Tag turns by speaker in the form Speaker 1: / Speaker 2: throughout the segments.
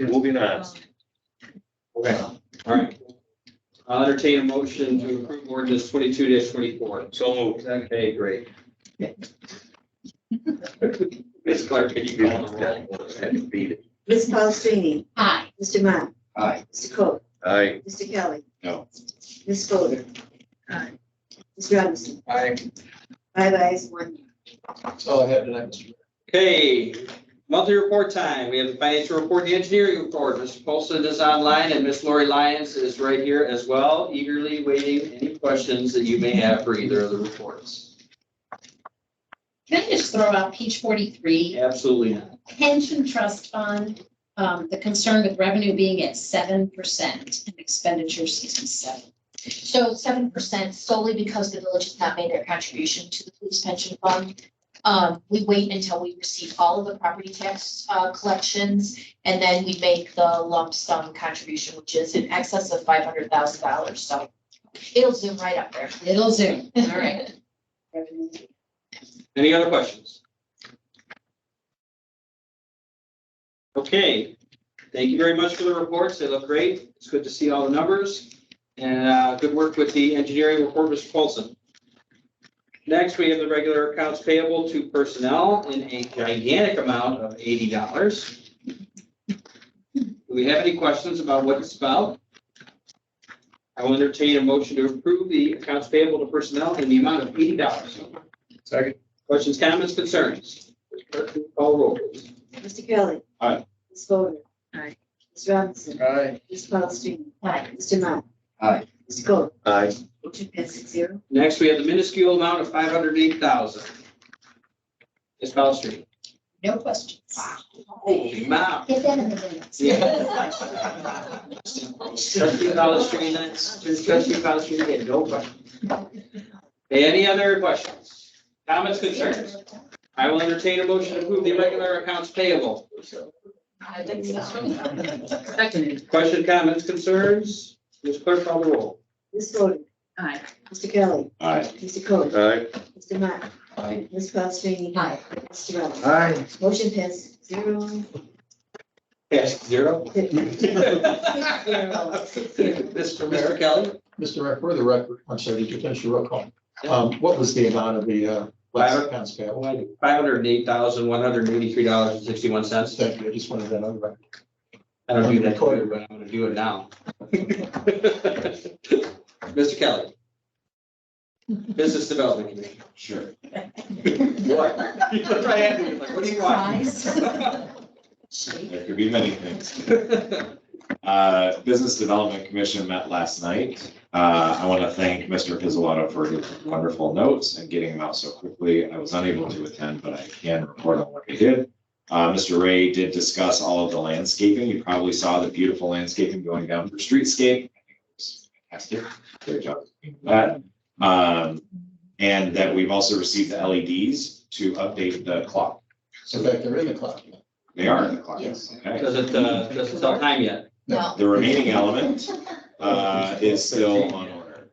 Speaker 1: Moving on.
Speaker 2: Okay, all right. I'll entertain a motion to approve ordinance twenty-two twenty-four.
Speaker 1: So moved.
Speaker 2: Okay, great. Ms. Clark, can you call the roll?
Speaker 1: Beat it.
Speaker 3: Ms. Paulini,
Speaker 4: Aye.
Speaker 3: Mr. Mott.
Speaker 2: Aye.
Speaker 3: Mr. Cole,
Speaker 1: Aye.
Speaker 3: Mr. Kelly.
Speaker 1: No.
Speaker 3: Ms. Fodor. Aye. Ms. Robinson,
Speaker 2: Aye.
Speaker 3: five ayes, one no.
Speaker 2: That's all I have tonight, Mr. Okay, monthly report time. We have the financial report, the engineering report. Mr. Polson is online and Miss Lori Lyons is right here as well, eagerly waiting any questions that you may have for either of the reports.
Speaker 4: Can I just throw out page forty-three,
Speaker 2: Absolutely not.
Speaker 4: pension trust fund, um, the concern with revenue being at seven percent and expenditure sixty-seven.
Speaker 5: So seven percent solely because the village has not made their contribution to the police pension fund. Um, we wait until we receive all of the property tax, uh, collections, and then we make the lump sum contribution, which is in excess of five hundred thousand dollars, so it'll zoom right up there.
Speaker 4: It'll zoom, all right.
Speaker 3: Revenue.
Speaker 2: Any other questions? Okay, thank you very much for the reports. They look great. It's good to see all the numbers. And uh, good work with the engineering report, Mr. Paulson. Next, we have the regular accounts payable to personnel in a gigantic amount of eighty dollars. Do we have any questions about what it's about? I will entertain a motion to approve the accounts payable to personnel in the amount of eighty dollars.
Speaker 6: Second.
Speaker 2: Questions, comments, concerns? Clerk, will you Call roll, please.
Speaker 3: Mr. Kelly.
Speaker 2: Aye.
Speaker 3: Ms. Fodor. Aye. Ms. Robinson,
Speaker 6: Aye.
Speaker 3: Ms. Paulini,
Speaker 5: Aye.
Speaker 3: Mr. Mott.
Speaker 6: Aye.
Speaker 3: Mr. Cole,
Speaker 1: Aye.
Speaker 3: motion passed six zero.
Speaker 2: Next, we have the minuscule amount of five hundred eight thousand. Ms. Palastrellini.
Speaker 4: No questions.
Speaker 2: Holy mow.
Speaker 5: Get that in the minutes.
Speaker 2: Yeah. Trustee Palastrellini, trustee Palastrellini, had no question. Any other questions? Comments, concerns? I will entertain a motion to approve the regular accounts payable.
Speaker 5: I think so.
Speaker 2: Question, comments, concerns? Ms. Clerk, call the roll.
Speaker 3: Ms. Fodor.
Speaker 4: Aye.
Speaker 3: Mr. Kelly.
Speaker 1: Aye.
Speaker 3: Mr. Cole,
Speaker 1: Aye.
Speaker 3: Mr. Mott.
Speaker 6: Aye.
Speaker 3: Ms. Paulini.
Speaker 5: Aye.
Speaker 3: Mr. Robinson,
Speaker 6: Aye.
Speaker 3: motion passed zero.
Speaker 2: Yes, zero. Mr. Mayor Kelly.
Speaker 6: Mr. Mayor, for the record, I'm sorry, did you finish your roll call? Um, what was the amount of the, uh, last accounts payable?
Speaker 2: Five hundred and eight thousand, one hundred and eighty-three dollars and sixty-one cents.
Speaker 6: Thank you, I just wanted that on the record.
Speaker 2: I don't do that, later, but I'm gonna do it now. Mr. Kelly. Business Development Committee.
Speaker 6: Sure.
Speaker 2: What? That's what I had to do, like, what do you want?
Speaker 4: Surprise.
Speaker 7: There could be many things.
Speaker 2: Thank
Speaker 7: Uh, Business Development Commission met last night. Uh, I want to thank Mr. Pizzolatto for his wonderful notes and getting them out so quickly. I was unable to attend, but I can report on what they did. Uh, Mr. Ray did discuss all of the landscaping. You probably saw the beautiful landscaping going down for streetscape. I think it was Fantastic. Great job. doing That. Um, and that we've also received the LEDs to update the clock.
Speaker 6: So that they're in the clock.
Speaker 7: They are in the clock.
Speaker 6: Yes.
Speaker 7: Okay.
Speaker 2: Doesn't, uh, doesn't tell time yet.
Speaker 5: No,
Speaker 7: The remaining element uh, is still on order.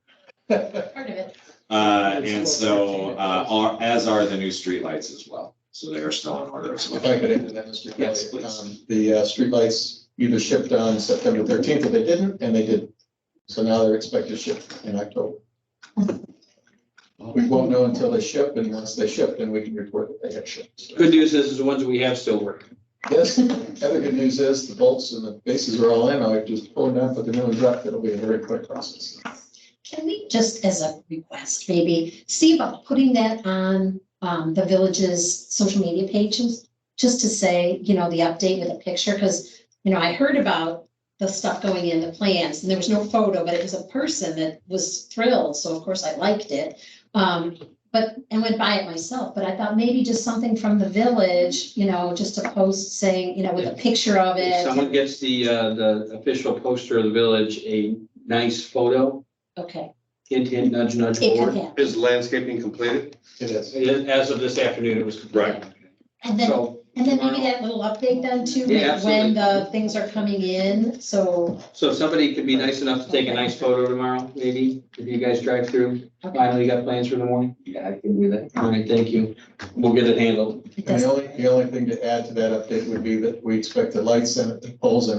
Speaker 5: part of it.
Speaker 7: Uh, And so, uh, are- as are the new streetlights as well. So they are still on order as
Speaker 6: If I
Speaker 7: well.
Speaker 6: could add to that, Mr. Kelly.
Speaker 7: Yes, please.
Speaker 6: um, The uh, streetlights either shipped on September thirteenth, or they didn't, and they did. So now they're expected to ship in October. We won't know until they ship, and once they ship, then we can report that they have shipped. So-
Speaker 2: Good news is, is the ones that we have still working.
Speaker 6: Yes, other good news is the bolts and the bases are all in. I just pull them out, put the new ones up. It'll be a very quick process.
Speaker 4: Can we just as a request, maybe see about putting that on um the village's social media pages? Just to say, you know, the update with a picture, because, you know, I heard about the stuff going in, the plans, and there was no photo, but it was a person that was thrilled, so of course I liked it. Um, but, and went by it myself, but I thought maybe just something from the village, you know, just a post saying, you know, with a picture of
Speaker 2: If
Speaker 4: it.
Speaker 2: someone gets the, uh, the official poster of the village, a nice photo,
Speaker 4: Okay,
Speaker 2: hint, hint, nudge, nudge
Speaker 4: it could
Speaker 2: board.
Speaker 4: happen.
Speaker 1: Is landscaping completed?
Speaker 6: It is.
Speaker 2: As of this afternoon, it was completed.
Speaker 4: And then
Speaker 2: So,
Speaker 4: And then maybe that little update then too,
Speaker 2: Yeah,
Speaker 4: like when
Speaker 2: absolutely.
Speaker 4: the things are coming in, so.
Speaker 2: so if somebody could be nice enough to take a nice photo tomorrow, maybe, if you guys drive through,
Speaker 4: okay,
Speaker 2: finally you got plans for the morning?
Speaker 6: Yeah, I can do that.
Speaker 2: All right, thank you. We'll get it handled.
Speaker 4: it
Speaker 6: And
Speaker 4: does-
Speaker 6: the only, the only thing to add to that update would be that we expect the lights and the poles and